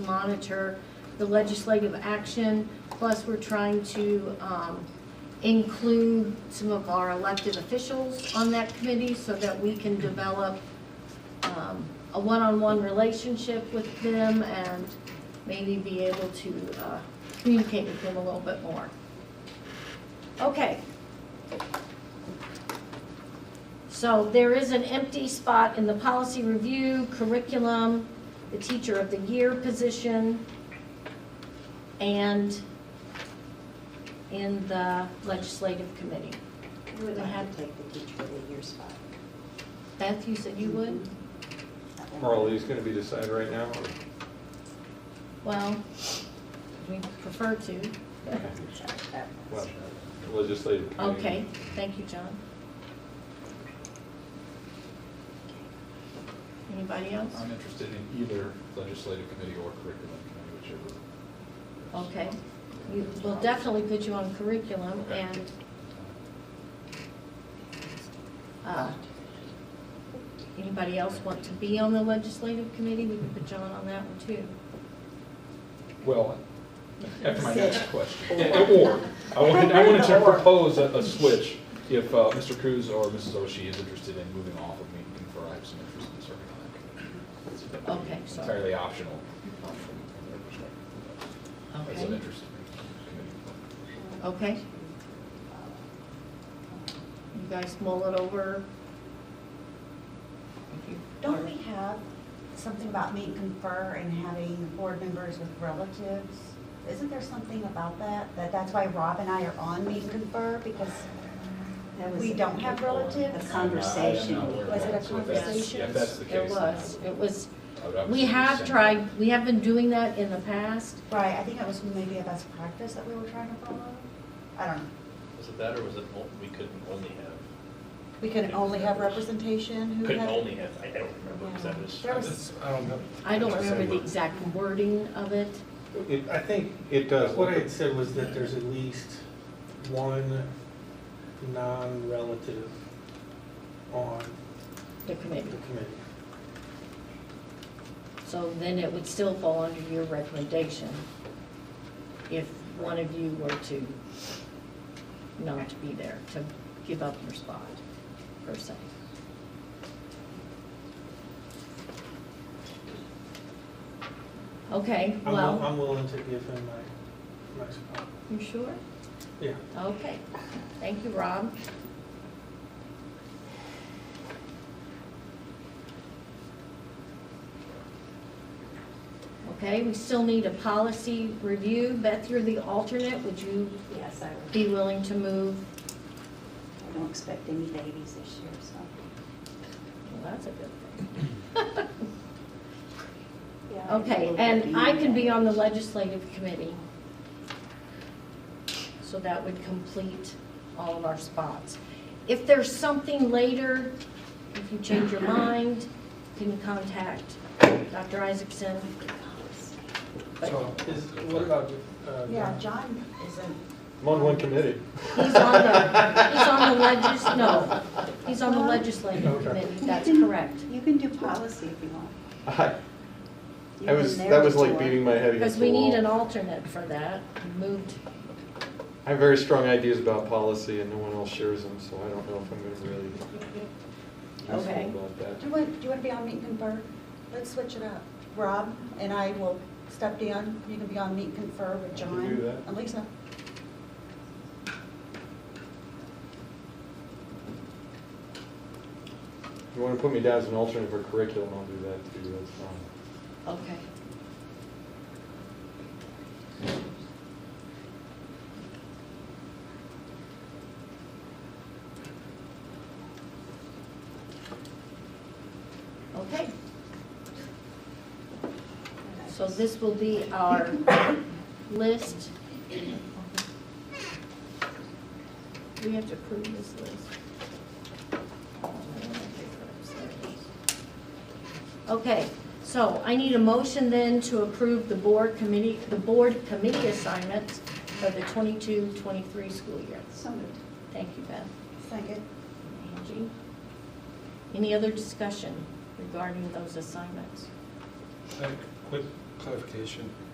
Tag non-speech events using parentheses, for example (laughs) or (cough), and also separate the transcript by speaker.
Speaker 1: monitor the legislative action, plus we're trying to um, include some of our elected officials on that committee so that we can develop um, a one-on-one relationship with them and maybe be able to uh, communicate with them a little bit more. Okay. So there is an empty spot in the policy review, curriculum, the teacher of the year position, and in the legislative committee.
Speaker 2: I would like to take the teacher of the year spot.
Speaker 1: Beth, you said you would?
Speaker 3: Are all these gonna be decided right now? or-
Speaker 1: Well, we prefer to.
Speaker 3: Well, the Legislative committee.
Speaker 1: Okay, thank you, John. Anybody else?
Speaker 4: I'm interested in either legislative committee or curriculum committee, whichever.
Speaker 1: Okay. We- We'll definitely put you on curriculum
Speaker 4: Okay.
Speaker 1: and uh, anybody else want to be on the legislative committee? We can put John on that one too.
Speaker 4: Well, after my next question.
Speaker 2: Or.
Speaker 4: Yeah, Or, I wanted, I wanted to propose a, a switch if uh, Mr. Cruz or Mrs. Oshie is interested in moving off of me, confer, I have some interest in serving on that committee.
Speaker 1: Okay,
Speaker 4: It's
Speaker 1: sorry.
Speaker 4: Entirely optional. option from their perspective. That's an
Speaker 1: Okay,
Speaker 4: interest in
Speaker 1: okay. You guys mull it over. If you-
Speaker 2: Don't we have something about meet and confer and having board members with relatives? Isn't there something about that? That that's why Rob and I are on meet and confer because
Speaker 5: That was
Speaker 2: we don't have relatives?
Speaker 5: A conversation.
Speaker 2: Was it a
Speaker 4: So if that's-
Speaker 2: conversation?
Speaker 4: yeah, if that's the
Speaker 1: There
Speaker 4: case. then I
Speaker 1: was,
Speaker 4: would-
Speaker 1: it was,
Speaker 4: I would obviously
Speaker 1: we have
Speaker 4: consent.
Speaker 1: tried, we have been doing that in the past.
Speaker 2: Right, I think that was maybe a best practice that we were trying to follow. I don't know.
Speaker 6: Was it that, or was it, o- we couldn't only have,
Speaker 2: We could only have representation who had.
Speaker 6: couldn't only have, I I don't remember, because that was.
Speaker 2: There was,
Speaker 7: I don't know.
Speaker 1: I don't remember the exact wording of it.
Speaker 7: It- I think
Speaker 3: It does.
Speaker 7: what I had said was that there's at least one non-relative on
Speaker 1: the
Speaker 7: the
Speaker 1: committee.
Speaker 7: committee.
Speaker 1: So then it would still fall under your recommendation if one of you were to not to be there, to give up your spot, per se. Okay,
Speaker 7: I'm, will-
Speaker 1: well,
Speaker 7: I'm willing to give him my, my spot.
Speaker 1: you sure?
Speaker 7: Yeah.
Speaker 1: Okay, thank you, Rob. Okay, we still need a policy review. Beth, you're the alternate. Would you
Speaker 5: Yes, I would.
Speaker 1: be willing to move?
Speaker 5: I don't expect any babies this year, so.
Speaker 1: Well, that's a good thing. (laughs)
Speaker 5: yeah,
Speaker 1: Okay,
Speaker 5: we'll
Speaker 1: and I can be
Speaker 5: that.
Speaker 1: on the legislative committee. So that would complete all of our spots. If there's something later, if you change your mind, you can contact Dr. Isaacson.
Speaker 7: So is, what about, uh,
Speaker 2: yeah,
Speaker 7: John?
Speaker 2: John isn't.
Speaker 3: I'm on one committee.
Speaker 1: He's on the, he's on the legis, no, he's on the legislative
Speaker 7: Okay.
Speaker 1: committee, that's correct.
Speaker 5: You can do policy if you want.
Speaker 3: I,
Speaker 5: You
Speaker 3: I was,
Speaker 5: can
Speaker 3: that was like
Speaker 5: narrator.
Speaker 3: beating my head
Speaker 1: Because
Speaker 3: against
Speaker 1: we
Speaker 3: the
Speaker 1: need an
Speaker 3: wall.
Speaker 1: alternate for that, moved,
Speaker 3: I have very strong ideas about policy and no one else shares them, so I don't know if I'm gonna really. do
Speaker 1: Okay.
Speaker 3: something About
Speaker 2: Do you
Speaker 3: that.
Speaker 2: want, do you want to be on Meet and Confer? Let's switch it up. Rob and I will step down, you can be on Meet and Confer with
Speaker 3: I
Speaker 2: John.
Speaker 3: can do that.
Speaker 2: And Lisa.
Speaker 3: If you wanna put me down as an alternate for curriculum, I'll do that too, that's fine.
Speaker 1: okay. Okay. So this will be our list. We have to approve this list. Okay, so I need a motion then to approve the board committee, the board committee assignments for the 22-23 school year.
Speaker 5: So moved.
Speaker 1: Thank you, Beth.
Speaker 2: Second.
Speaker 1: Angie. Any other discussion regarding those assignments?
Speaker 7: Quick clarification.